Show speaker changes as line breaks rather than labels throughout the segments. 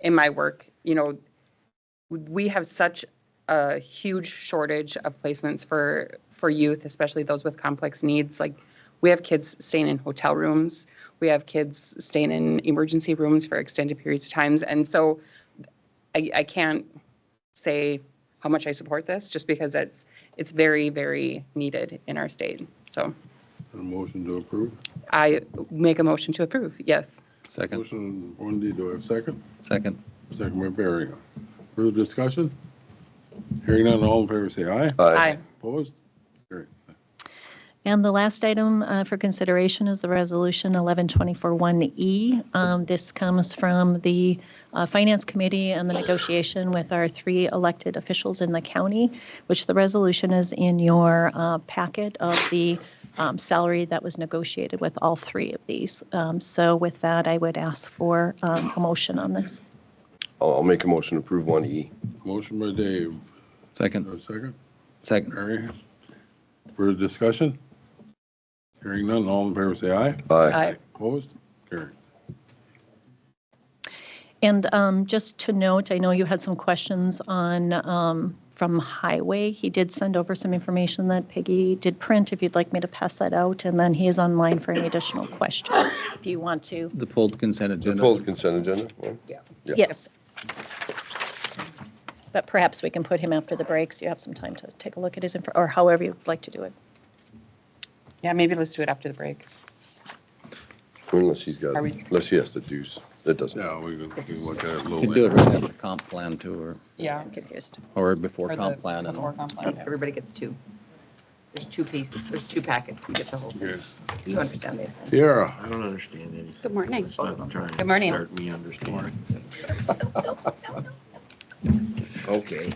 in my work, you know, we have such a huge shortage of placements for, for youth, especially those with complex needs. Like, we have kids staying in hotel rooms. We have kids staying in emergency rooms for extended periods of times. And so I, I can't say how much I support this, just because it's, it's very, very needed in our state. So
A motion to approve.
I make a motion to approve, yes.
Second,
Motion Wendy, do I have a second?
second.
Second by Barry. Further discussion? Hearing none, all in favor say aye.
Aye.
Opposed? Carried.
And the last item uh, for consideration is the Resolution 11241E. Um, This comes from the uh, Finance Committee and the negotiation with our three elected officials in the county, which the resolution is in your uh, packet of the um, salary that was negotiated with all three of these. Um, So with that, I would ask for um, a motion on this.
I'll, I'll make a motion to approve one E.
Motion by Dave, do I
Second,
have a second?
second.
Barry. Further discussion? Hearing none, all in favor say aye.
Aye.
Opposed? Carried.
And um, just to note, I know you had some questions on, um, from Highway. He did send over some information that Peggy did print, if you'd like me to pass that out. And then he is online for any additional questions, if you want to.
The pulled consent
The
agenda.
pulled consent agenda? right? Yeah.
Yes. But perhaps we can put him after the breaks. You have some time to take a look at his, info, or however you'd like to do it.
Yeah, maybe let's do it after the break.
Unless he's got,
Are we-
unless he has to deuce. That doesn't.
Yeah, we can we can look at it a
You
little
could do it
later.
right after comp plan too, or,
Yeah.
I'm confused.
or before
Or the-
comp plan. and-
before comp plan, yeah.
Everybody gets two. There's two pieces, there's two packets, you get the whole.
Okay.
You understand this?
Tiara,
I don't understand any.
Good morning.
It's not trying to
Good morning.
Start me understanding. Okay.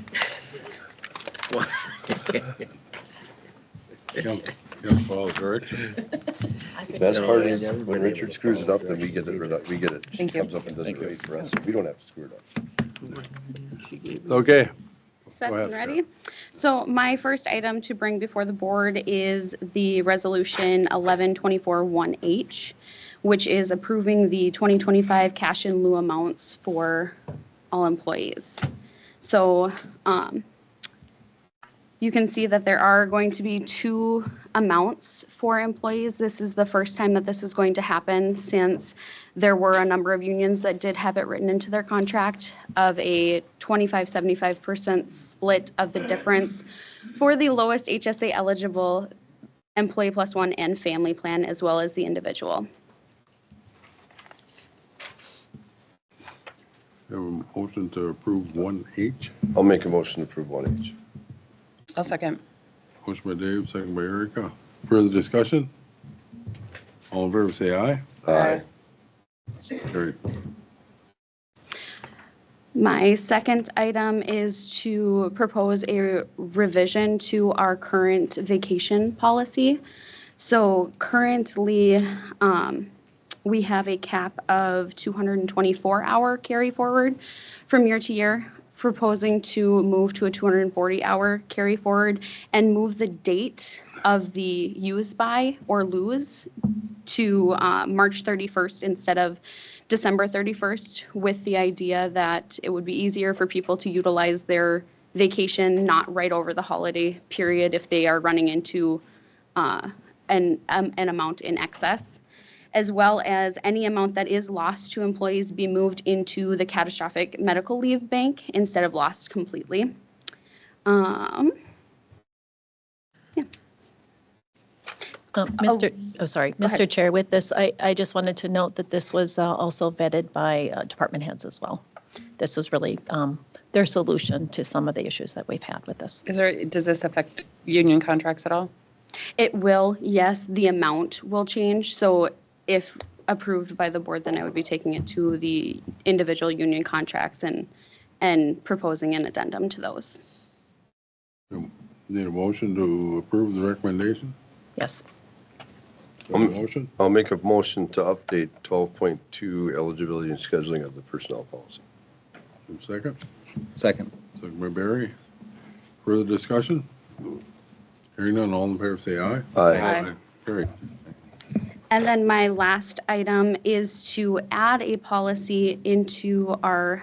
you have to follow directions.
Best part is
Yeah, everybody
when
able
Richard
to
screws it
follow
up, then we get it, right- we get it. She
Thank you.
comes up and does it
Thank you.
right for us. We don't have to screw it up.
Okay,
Set
Go ahead,
and ready. So my first item to bring before the board is the resolution 11241H, which is approving the 2025 cash in lieu amounts for all employees. So um, you can see that there are going to be two amounts for employees. This is the first time that this is going to happen since there were a number of unions that did have it written into their contract of a 25, 75% split of the difference for the lowest HSA eligible employee plus one and family plan, as well as the individual.
we have a motion to approve 1H.
I'll make a motion to approve one H.
I'll second.
Motion by Dave, second by Erica. Further discussion? All in favor, say aye.
Aye.
Carried.
My second item is to propose a revision to our current vacation policy. So currently, um, we have a cap of 224-hour carry forward from year to year, proposing to move to a 240-hour carry forward and move the date of the use by or lose to uh, March 31st instead of December 31st, with the idea that it would be easier for people to utilize their vacation not right over the holiday period if they are running into uh, an, um, an amount in excess, as well as any amount that is lost to employees be moved into the catastrophic medical leave bank instead of lost completely. Um,
Uh, Mr., oh, sorry,
ahead.
Mr. Chair, with this, I, I just wanted to note that this was uh, also vetted by uh, department heads as well. This was really um, their solution to some of the issues that we've had with this.
Is there, does this affect union contracts at all?
It will, yes, the amount will change. So if approved by the board, then I would be taking it to the individual union contracts and, and proposing an addendum to those.
Need a motion to approve the recommendation?
Yes.
Do I have a Motion?
I'll make a motion to update twelve point two eligibility and scheduling of the personnel policy.
Second?
Second,
Second by Barry. Further discussion? Hearing none, all in favor, say aye.
Aye.
Carried.
And then my last item is to add a policy into our